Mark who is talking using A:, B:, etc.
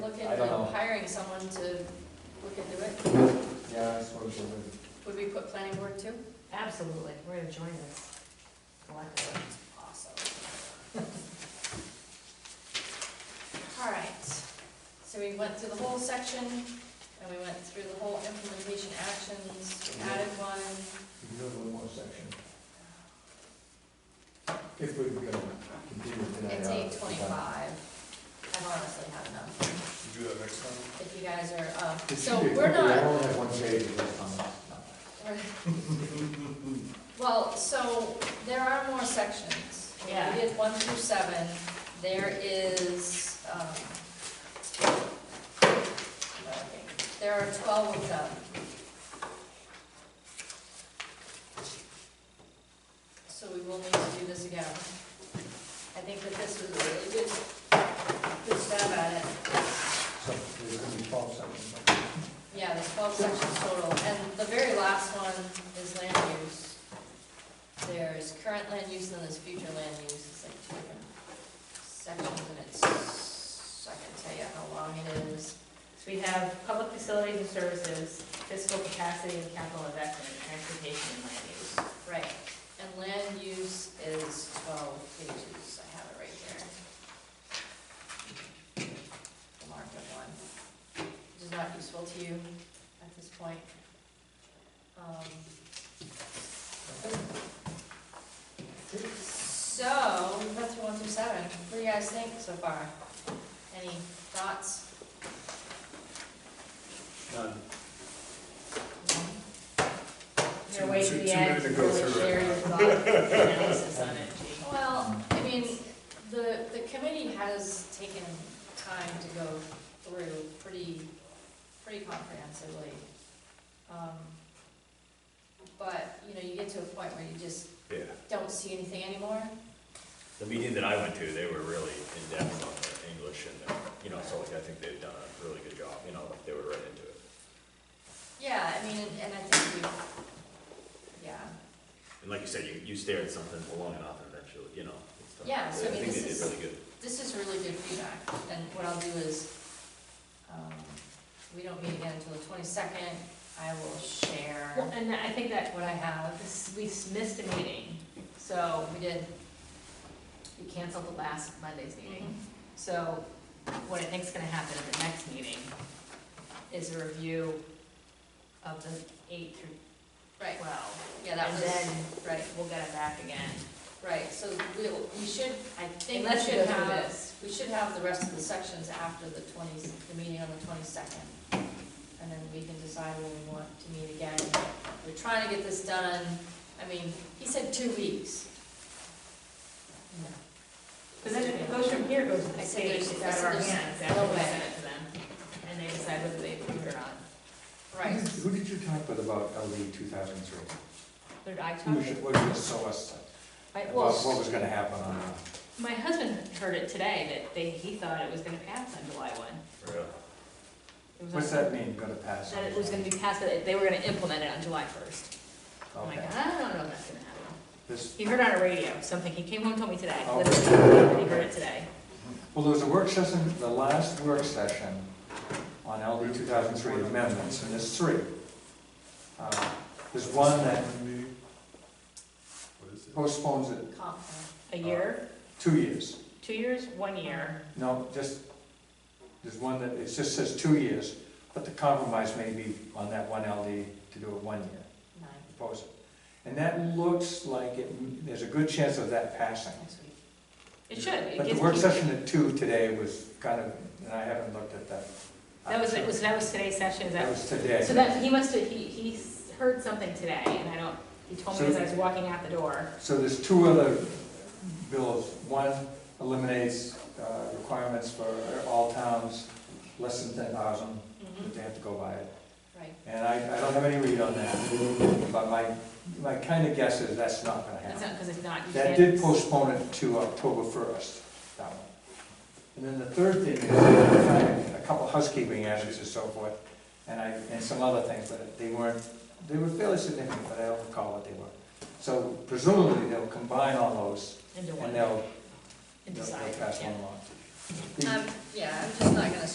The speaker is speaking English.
A: don't know.
B: hiring someone to look into it?
A: Yeah, I suppose it would.
B: Would we put planning board too?
C: Absolutely, we're gonna join this. collectively.
B: Awesome. All right, so we went through the whole section, and we went through the whole implementation actions, we added one.
A: We could do a little more section. If we were gonna continue tonight.
B: It's
A: uh,
B: eight twenty-five. I've honestly had enough,
D: Do that next time.
B: if you guys are, uh,
A: It
B: so
A: should be-
B: we're
A: We
B: not,
A: only have one page of this on.
B: Well, so there are more sections. We
C: Yeah.
B: did one through seven. There is, um, there are twelve of them. So we will need to do this again. I think that this was a really good, good job at it.
A: So there's gonna be twelve sections.
B: Yeah, there's twelve sections total, and the very last one is land use. There's current land use and then there's future land use, it's like two different sections, and it's, I can tell you how long it is.
C: So we have public facilities and services, fiscal capacity and capital investment, transportation and land use.
B: Right, and land use is twelve pages, I have it right here. The markup one, which is not useful to you at this point. Um, So, that's one through seven, what do you guys think so far? Any thoughts?
D: None.
C: Your way to
D: Too- too-
C: the
D: too
C: end,
D: many to
C: to
D: go
C: really
D: through it.
C: share your thoughts and analysis on it, Jean.
B: Well, I mean, the, the committee has taken time to go through pretty, pretty comprehensively. Um, But, you know, you get to a point where you just
E: Yeah,
B: don't see anything anymore.
E: the meeting that I went to, they were really in-depth on the English and, the- you know, so like, I think they've done a really good job, you know, like, they were right into it.
B: Yeah, I mean, and- and I think we, yeah,
E: And like you said, you, you stare at something for long enough and eventually, you know, it's done.
B: Yeah, so I mean,
E: think they
B: this
E: did
B: is-
E: really good.
B: this is really good feedback. And what I'll do is, um, we don't meet again until the twenty-second. I will
C: Well,
B: share
C: and I think that
B: what I have.
C: this- we missed a meeting, so
B: We did
C: we canceled the last Monday's meeting. So what I think is gonna happen at the next meeting is a review of the eight through
B: Right,
C: twelve.
B: yeah, that
C: And
B: was,
C: then
B: right,
C: we'll get it back again.
B: right, so we'll, we should, I think we
C: Unless you
B: should
C: go through
B: have,
C: this.
B: we should have the rest of the sections after the twenty, the meeting on the twenty-second. And then we can decide when we want to meet again. We're trying to get this done, I mean, he said two weeks. No.
C: Because then if it goes from here, goes to
B: I
C: the
B: said
C: state,
B: there's-
C: it's
B: I
C: out of
B: said
C: our
B: there's
C: hands,
B: no
C: after we
B: way.
C: send it to them, and they decide whether they approve it or not.
B: Right,
A: Who did you talk with about LD two thousand three?
C: Did I talk?
A: Who was, what was the source,
C: My,
A: about what
C: well,
A: was gonna happen on, uh,
C: my husband heard it today, that they, he thought it was gonna pass on July one.
E: Really?
C: It was
A: what's
C: on-
A: that mean, gonna pass?
C: That it was gonna be passed, that they were gonna implement it on July first.
B: Oh
C: I'm like,
A: Okay,
C: I don't know if that's gonna happen.
A: this,
C: He heard on a radio, something, he came home, and told me today,
A: Oh.
C: literally, he heard it today.
A: well, there was a work session, the last work session on LD two thousand three amendments, and there's three. Uh, There's one that
D: Meeting. What is it?
A: postpones it
B: comp plan.
C: A year,
A: two years.
C: two years, one year,
A: No, just, there's one that, it just says two years, but the compromise may be on that one LD to do it one year,
B: Nine,
A: propose it. And that looks like it, there's a good chance of that passing.
B: next week.
C: it should. It
A: But the
C: gets-
A: work session at two today was kind of, and I haven't looked at that.
C: That was, it was, that was today's session, is that
A: That was today.
C: So that, he must have, he, he s- heard something today, and I don't, he told me as I was walking out the door.
A: So there's two other bills. One eliminates uh, requirements for all towns less than ten thousand,
B: Mm-hmm.
A: that they have to go by it.
B: Right,
A: And I, I don't have any read on that, but my, my kind of guess is that's not gonna
C: It's
A: happen.
C: not, because it's not, you
A: That
C: can't.
A: did postpone it to October first, that one. And then the third thing is, a couple housekeeping items and so forth, and I, and some other things, but they weren't, they were fairly significant, but I don't recall what they were. So presumably they'll combine all those
C: Into
A: and
C: one,
A: they'll,
C: and
A: they'll
C: decide,
A: they'll pass
C: yeah. Uh,
A: one along. The-
B: um, yeah, I'm just not gonna